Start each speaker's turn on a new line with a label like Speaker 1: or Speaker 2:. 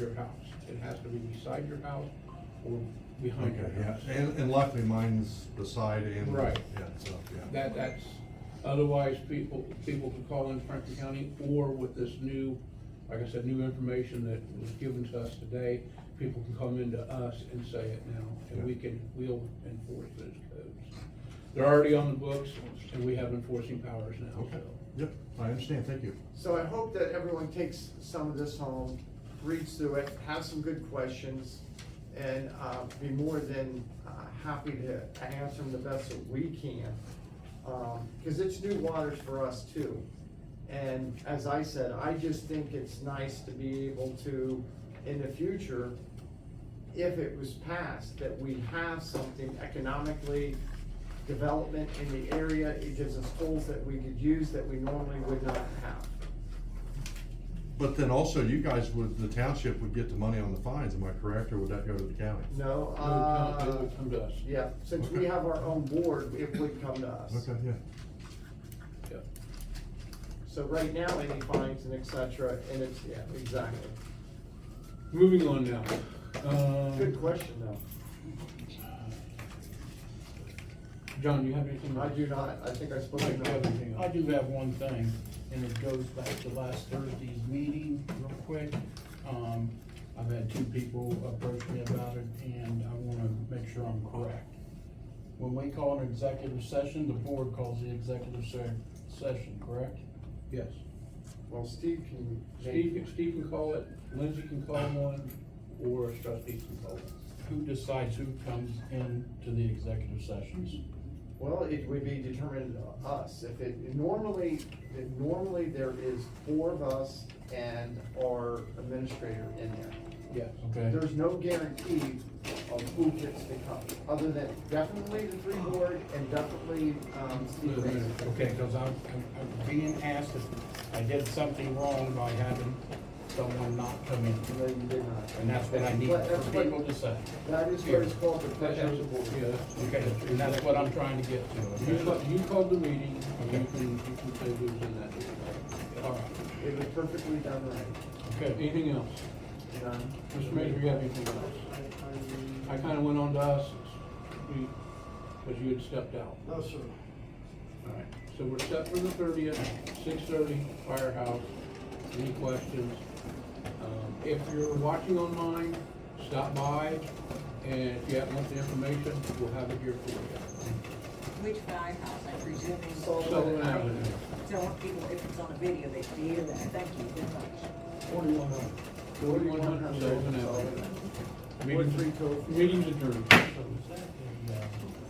Speaker 1: your house. It has to be beside your house or behind
Speaker 2: Okay,
Speaker 1: your
Speaker 2: yeah,
Speaker 1: house.
Speaker 2: and, and luckily mine's beside and.
Speaker 1: Right.
Speaker 2: Yeah, so, yeah.
Speaker 1: That, that's, otherwise people, people can call in Franklin County or with this new, like I said, new information that was given to us today, people can come into us and say it now, and we can, we'll enforce those codes. They're already on the books, and we have enforcing powers now,
Speaker 2: Okay,
Speaker 1: so.
Speaker 2: yep, I understand, thank you.
Speaker 3: So I hope that everyone takes some of this home, reads through it, have some good questions, and uh, be more than uh, happy to answer them the best that we can. Because it's new waters for us too. And as I said, I just think it's nice to be able to, in the future, if it was passed, that we have something economically, development in the area, it gives us tools that we could use that we normally would not have.
Speaker 2: But then also you guys would, the township would get the money on the fines, am I correct, or would that go to the county?
Speaker 3: No,
Speaker 1: They would come- they
Speaker 3: uh,
Speaker 1: would come to us.
Speaker 3: yeah, since we have our own board, it would come to us.
Speaker 2: Okay, yeah,
Speaker 1: Yep.
Speaker 3: So right now, any fines and et cetera, and it's, yeah, exactly.
Speaker 1: Moving on now. Um,
Speaker 3: Good question though.
Speaker 1: John, you have anything?
Speaker 3: I do not, I think I spoke
Speaker 1: Mike, you have
Speaker 3: enough.
Speaker 1: anything?
Speaker 4: I do have one thing, and it goes back to last Thursday's meeting, real quick. Um, I've had two people approach me about it, and I wanna make sure I'm correct. When we call an executive session, the board calls the executive se- session, correct?
Speaker 1: Yes.
Speaker 3: Well, Steve can.
Speaker 1: Steve, can- Steve can call it, Lindsay can call one, or trustees can call it.
Speaker 4: Who decides who comes into the executive sessions?
Speaker 3: Well, it would be determined to us, if it, normally, it- normally there is four of us and our administrator in there.
Speaker 1: Yes.
Speaker 4: Okay,
Speaker 3: There's no guarantee of who gets to come, other than definitely the three board and definitely, um, Steve Mason.
Speaker 4: okay, cause I'm, I'm I'm being asked if I did something wrong by having someone not come in.
Speaker 3: No, you did not.
Speaker 4: And that's what I need
Speaker 3: But that's
Speaker 4: for
Speaker 3: what-
Speaker 4: people to say.
Speaker 3: That is what it's called, the
Speaker 1: That's,
Speaker 3: pleasure
Speaker 1: yeah,
Speaker 3: of the board.
Speaker 4: Okay, and that's what I'm trying to get to.
Speaker 1: you
Speaker 4: okay?
Speaker 1: called, you called the meeting, and you can, you can say who's in that. meeting.
Speaker 4: All right,
Speaker 3: It was perfectly done right.
Speaker 4: okay.
Speaker 1: Anything else?
Speaker 3: None.
Speaker 1: Mr. Major, you have anything else? I kinda went on to us, we, cause you had stepped out.
Speaker 5: No, sir.
Speaker 1: Alright, so we're set for the thirtieth, six thirty, firehouse, any questions? Um, if you're watching online, stop by, and if you have more information, we'll have it here for you.
Speaker 6: Which firehouse, I presume? is-
Speaker 1: Sullivan Avenue.
Speaker 6: So if people, if it's on a video, they can hear that, thank you very much.
Speaker 1: Forty-one hundred. Forty-one hundred Sullivan Avenue.
Speaker 3: Forty-three total.
Speaker 1: Meeting's adjourned.
Speaker 4: So is that the, uh,